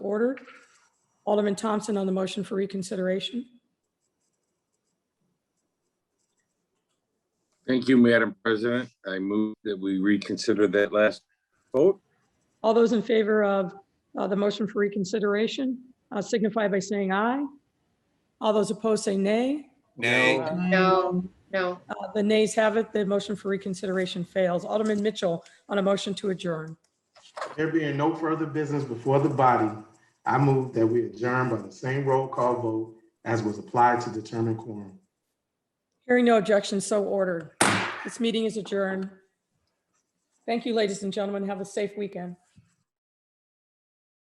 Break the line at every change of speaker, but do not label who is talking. ordered. Alderman Thompson on the motion for reconsideration.
Thank you, Madam President. I move that we reconsider that last vote.
All those in favor of uh, the motion for reconsideration uh, signify by saying aye. All those opposed say nay.
Nay.
No, no.
Uh, The nays have it. The motion for reconsideration fails. Alderman Mitchell on a motion to adjourn.
There being no further business before the body, I move that we adjourn by the same roll call vote as was applied to determine quorum.
Hearing no objections, so ordered. This meeting is adjourned. Thank you, ladies and gentlemen. Have a safe weekend.